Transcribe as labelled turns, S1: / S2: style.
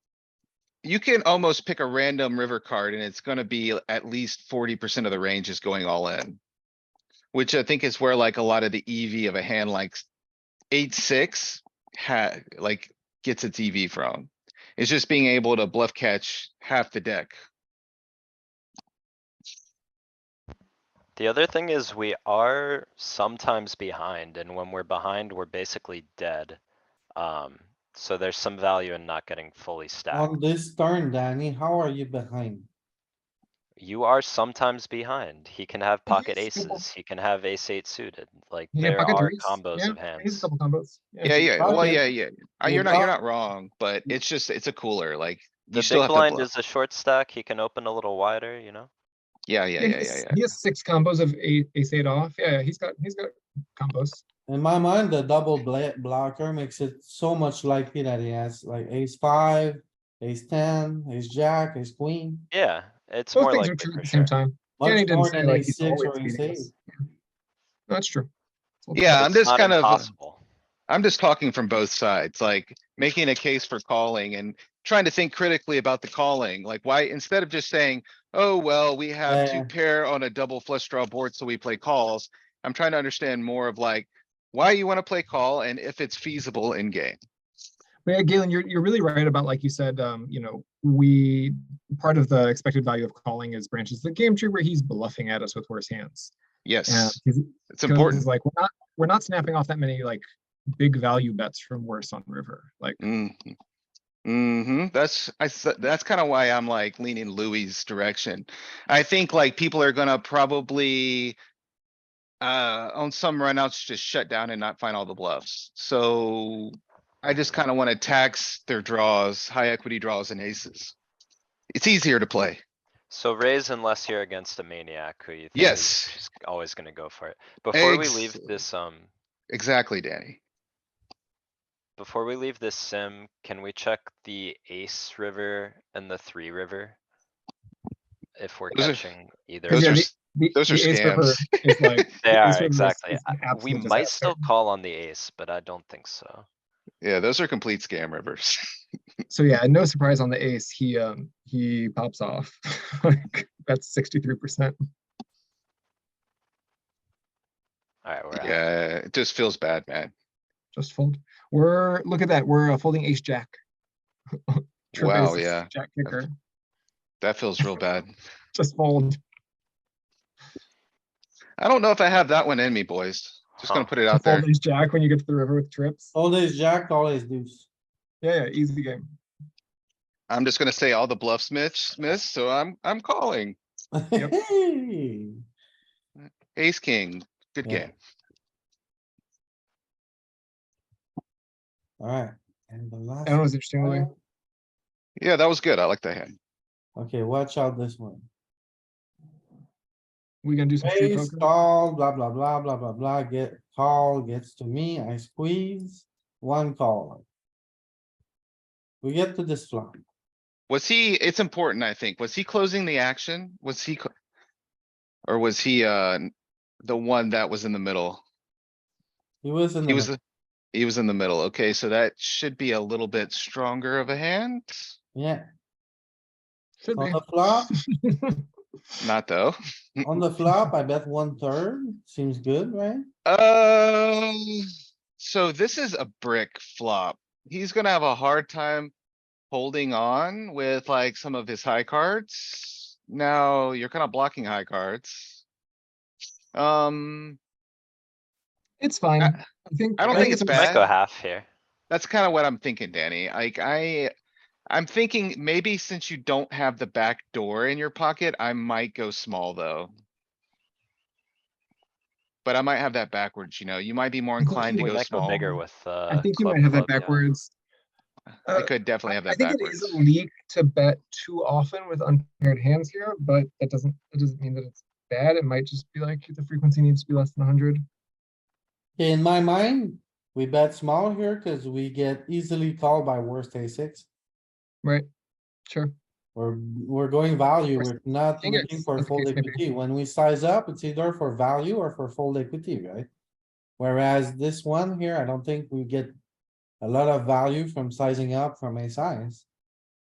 S1: You can almost pick a random river card and it's gonna be at least forty percent of the range is going all in. Which I think is where like a lot of the EV of a hand like s- eight, six had, like gets its EV from. It's just being able to bluff catch half the deck.
S2: The other thing is we are sometimes behind and when we're behind, we're basically dead. Um, so there's some value in not getting
S3: Um
S2: fully
S4: On
S2: stacked.
S4: this turn, Danny, how are you behind?
S2: You are sometimes behind. He can have pocket
S3: Yes, you are.
S2: aces, he can have ace eight suited, like
S3: You can
S2: there
S3: pocket
S2: are
S3: ace,
S2: combos
S3: yeah,
S2: of
S3: He's
S2: hands.
S3: double combos.
S1: Yeah, yeah, well,
S4: bucket.
S1: yeah, yeah. Uh,
S4: You
S1: You're not, you're
S4: bucket.
S1: not wrong, but it's just, it's a cooler, like. you
S2: The
S1: still
S2: big
S1: have to
S2: blind
S1: bluff.
S2: is a short stack, he can open a little wider, you know?
S1: Yeah, yeah,
S3: Yeah,
S1: yeah,
S3: he's-
S1: yeah, yeah.
S3: He has six combos of eight, ace eight off. Yeah, yeah, he's got, he's got combos.
S4: In my mind, the double bla- blocker makes it so much likely that he has like ace five, ace ten, ace jack, ace queen.
S2: Yeah, it's
S3: Both
S2: more
S3: things are
S2: likely
S3: true at
S2: for
S3: the same
S2: sure.
S3: time.
S4: much
S3: Danny didn't
S4: more
S3: say
S4: than
S3: like
S4: ace
S3: he's
S4: six
S3: always
S4: or ace
S3: beating
S4: eight.
S3: us. Yeah. No, That's true.
S1: Yeah, I'm
S2: It's
S1: just
S2: not
S1: kind of, uh
S2: impossible.
S1: I'm just talking from both sides, like making a case for calling and trying to think critically about the calling, like why, instead of just saying, oh, well, we have
S4: Yeah.
S1: to pair on a double flush draw board, so we play calls. I'm trying to understand more of like why you wanna play call and if it's feasible in game.
S3: But yeah, Galen, you're, you're really right about, like you said, um, you know, we, part of the expected value of calling is branches of the game tree where he's bluffing at us with worse hands. Yeah,
S1: Yes,
S3: he's-
S1: it's
S3: 'cause
S1: important.
S3: It's like, we're not, we're not snapping off that many like big value bets from worse on river. Like,
S1: Mm-hmm, that's, I, s- that's kinda why I'm like leaning Louis's direction. I think like people are gonna probably. Uh, on some runouts, just shut down and not find all the bluffs, so. I just kinda wanna tax their draws, high equity draws and aces. It's easier to play.
S2: So raise unless you're against a maniac who you think is
S1: Yes.
S2: just always gonna go for it. Before we leave
S1: Ex-
S2: this, um,
S1: Exactly, Danny.
S2: before we leave this sim, can we check the ace river and the three river? If we're
S1: Those are-
S2: catching either. of
S1: Those are,
S3: yeah,
S2: them.
S1: s-
S3: the-
S1: those are
S3: the ace river
S1: scams.
S3: is like- the
S2: They
S3: ace
S2: are,
S3: river is-
S2: exactly.
S3: is an
S2: We
S3: absolute
S2: might
S3: disaster.
S2: still call on the ace, but I don't think so.
S1: Yeah, those are complete scam rivers.
S3: So yeah, no surprise on the ace, he, um, he pops off. Like, that's sixty-three percent.
S2: Alright, we're out.
S1: Yeah, it just feels bad, man.
S3: Just fold. We're, look at that, we're uh, folding ace jack. Trip
S1: Wow,
S3: aces,
S1: yeah.
S3: Jack kicker,
S1: That feels real bad.
S3: just fold.
S1: I don't know if I have that one in me, boys. Just gonna
S2: Huh.
S1: put it
S3: You
S1: out there.
S3: Fold ace jack when you get to the river with trips.
S4: All ace jack, all ace deuce.
S3: Yeah, yeah, easy game.
S1: I'm just gonna say all the bluff smiths, miss, so I'm, I'm calling
S3: Yep.
S1: ace, king. Good
S4: Yeah.
S1: game.
S4: Alright, and the last.
S3: That was interesting. Louis.
S4: one.
S1: Yeah, that was good. I like that hand.
S4: Okay, watch out this one.
S3: We gonna do some street
S4: Ace,
S3: poker?
S4: call, blah, blah, blah, blah, blah, blah, get, call, gets to me, I squeeze, one call. We get to this flop.
S1: Was he, it's important, I think. Was he closing the action? Was he? cl- Or was he, uh, the one that was in the middle?
S4: He was in
S1: He
S4: the,
S1: was,
S4: middle.
S1: the- he was in the middle. Okay, so that should be a little bit stronger of a hand.
S4: yeah,
S3: Should
S4: on
S3: be.
S4: the flop,
S1: Not though.
S4: on the flop, I bet one third, seems good, right?
S1: Um, so this is a brick flop. He's gonna have a hard time holding on with like some of his high cards. Now you're kind of blocking high cards. Um,
S3: It's fine. I think.
S1: I don't think it's
S3: a-
S1: bad.
S2: Might go half here.
S1: that's kind of what I'm thinking, Danny. Like I, I'm thinking maybe since you don't have the back door in your pocket, I might go small though. But I might have that backwards, you know, you might be more
S3: think
S1: inclined to
S2: We
S3: you
S1: go
S2: might go
S1: small.
S2: bigger with, uh.
S3: I think you
S2: club,
S3: might have that
S2: club, yeah.
S3: backwards.
S1: I
S3: Uh,
S1: could definitely have
S3: I
S1: that
S3: think it is
S1: backwards.
S3: a leak to bet too often with unpaired hands here, but that doesn't, it doesn't mean that it's bad. It might just be like the frequency needs to be less than hundred.
S4: Okay, in my mind, we bet small here cuz we get easily called by worst ace six.
S3: Right, sure.
S4: We're, we're going value,
S3: Or
S4: we're not
S3: fingers,
S4: looking for
S3: as the
S4: fold
S3: case may be.
S4: equity. When we size up, it's either for value or for fold equity, right? Whereas this one here, I don't think we get a lot of value from sizing up from a size.